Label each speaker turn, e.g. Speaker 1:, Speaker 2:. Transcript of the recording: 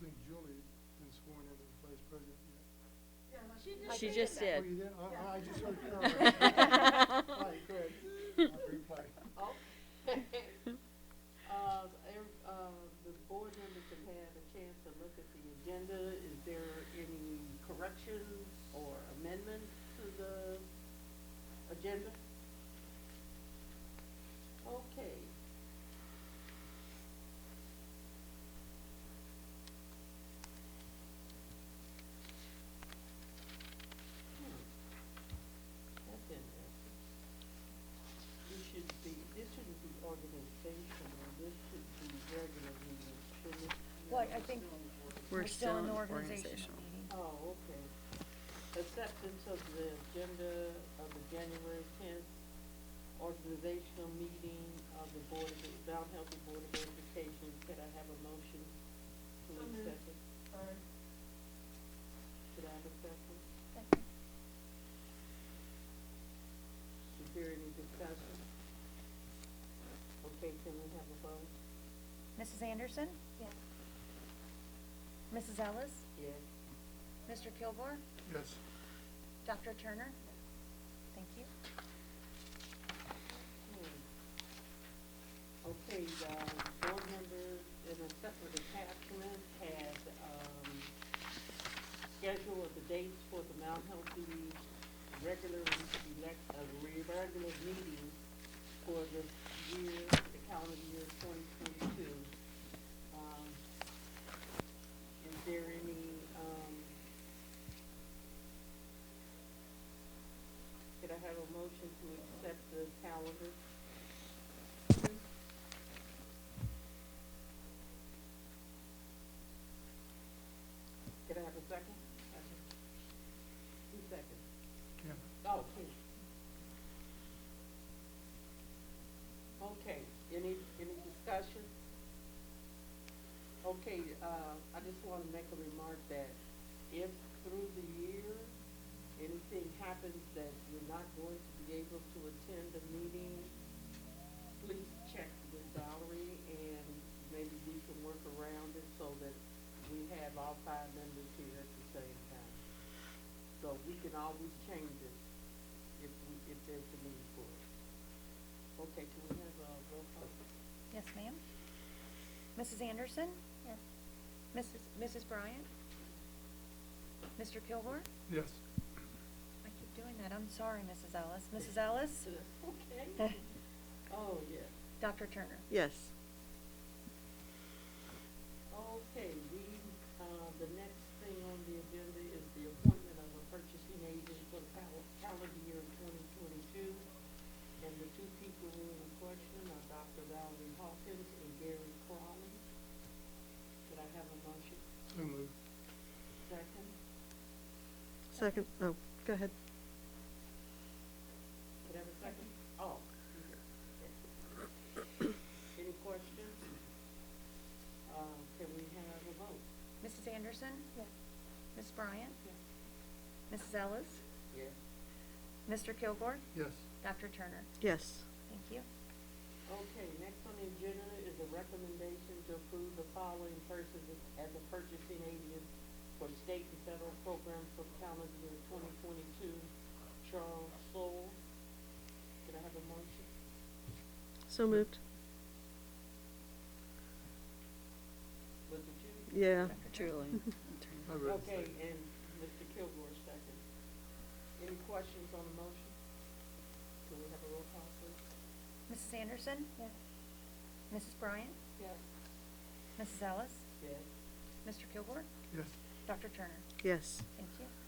Speaker 1: think Julie has been sworn in as vice president yet.
Speaker 2: She just
Speaker 1: Oh,
Speaker 2: did.
Speaker 1: you did? I, I just heard Carol. All right, go ahead. I'll reply.
Speaker 3: Uh, ev- uh, the board members have had a chance to look at the agenda. Is there any corrections or amendments to the agenda? Okay. Hmm. That's interesting this should be, this shouldn't be organizational, this should be regular meeting, shouldn't it?
Speaker 4: Well, I think-
Speaker 2: We're still in
Speaker 4: the
Speaker 2: organizational.
Speaker 4: meeting.
Speaker 3: Oh, okay. Acceptance of the agenda of the January tenth organizational meeting of the Board of, Mount Healthy Board of Education. Could I have a motion to
Speaker 5: So moved.
Speaker 3: accept it? Could I have a second? Is there any discussion? Okay, can we have a vote?
Speaker 4: Mrs. Anderson?
Speaker 5: Yes.
Speaker 4: Mrs. Ellis?
Speaker 3: Yes.
Speaker 4: Mr. Kilgore?
Speaker 1: Yes.
Speaker 4: Dr. Turner? Thank you.
Speaker 3: Hmm. Okay, the board members in a separate attachment had, um, schedule of the dates for the Mount Healthy regular elect, uh, regular meeting for this year, the calendar year twenty twenty-two. Um, is there any, um, could I have a motion to accept the calendar? Could I have a second? Two seconds.
Speaker 1: Kim,
Speaker 3: Oh, please. Okay, any, any discussion? Okay, uh, I just wanna make a remark that if through the year, anything happens that you're not going to be able to attend a meeting, please check with Valerie and maybe we can work around it so that we have all five members here at the same time. So we can always change it if we, if there's a need for it. Okay, can we have a roll call?
Speaker 4: Yes, ma'am. Mrs. Anderson?
Speaker 5: Yes.
Speaker 4: Mrs. Mrs. Bryant? Mr. Kilgore?
Speaker 1: yes.
Speaker 4: I keep doing that. I'm sorry, Mrs. Ellis. Mrs. Ellis?
Speaker 3: Okay. Oh, yes.
Speaker 4: Dr. Turner?
Speaker 2: Yes.
Speaker 3: Okay, we, uh, the next thing on the agenda is the appointment of a purchasing agent for the cal- calendar year twenty twenty-two. And the two people who are in question are Dr. Valerie Hawkins and Gary Crowley. Could I have a motion?
Speaker 1: So moved.
Speaker 3: Second?
Speaker 2: Second, oh, go ahead.
Speaker 3: Could I have a second? Oh. okay. Any questions? Uh, can we have a vote?
Speaker 4: Mrs. Anderson?
Speaker 5: Yes.
Speaker 4: Ms. Bryant? Mrs. Ellis?
Speaker 3: Yes.
Speaker 4: Mr. Kilgore?
Speaker 1: Yes.
Speaker 4: Dr. Turner?
Speaker 2: Yes.
Speaker 4: Thank you.
Speaker 3: Okay, next on the agenda is a recommendation to approve the following persons as a purchasing agent for state and federal programs for calendar year twenty twenty-two. Charles Soule. Could I have a motion?
Speaker 2: So moved.
Speaker 3: Was it you?
Speaker 2: Yeah.
Speaker 6: Truly.
Speaker 1: I read the
Speaker 3: Okay,
Speaker 1: second.
Speaker 3: and Mr. Kilgore second. Any questions on the motion? Can we have a roll call, please?
Speaker 4: Mrs. Anderson?
Speaker 5: Yes.
Speaker 4: Mrs. Bryant?
Speaker 3: Yes.
Speaker 4: Mrs. Ellis?
Speaker 3: Yes.
Speaker 4: Mr. Kilgore?
Speaker 1: Yes.
Speaker 4: Dr. Turner?
Speaker 2: Yes.
Speaker 4: Thank you.
Speaker 3: uh,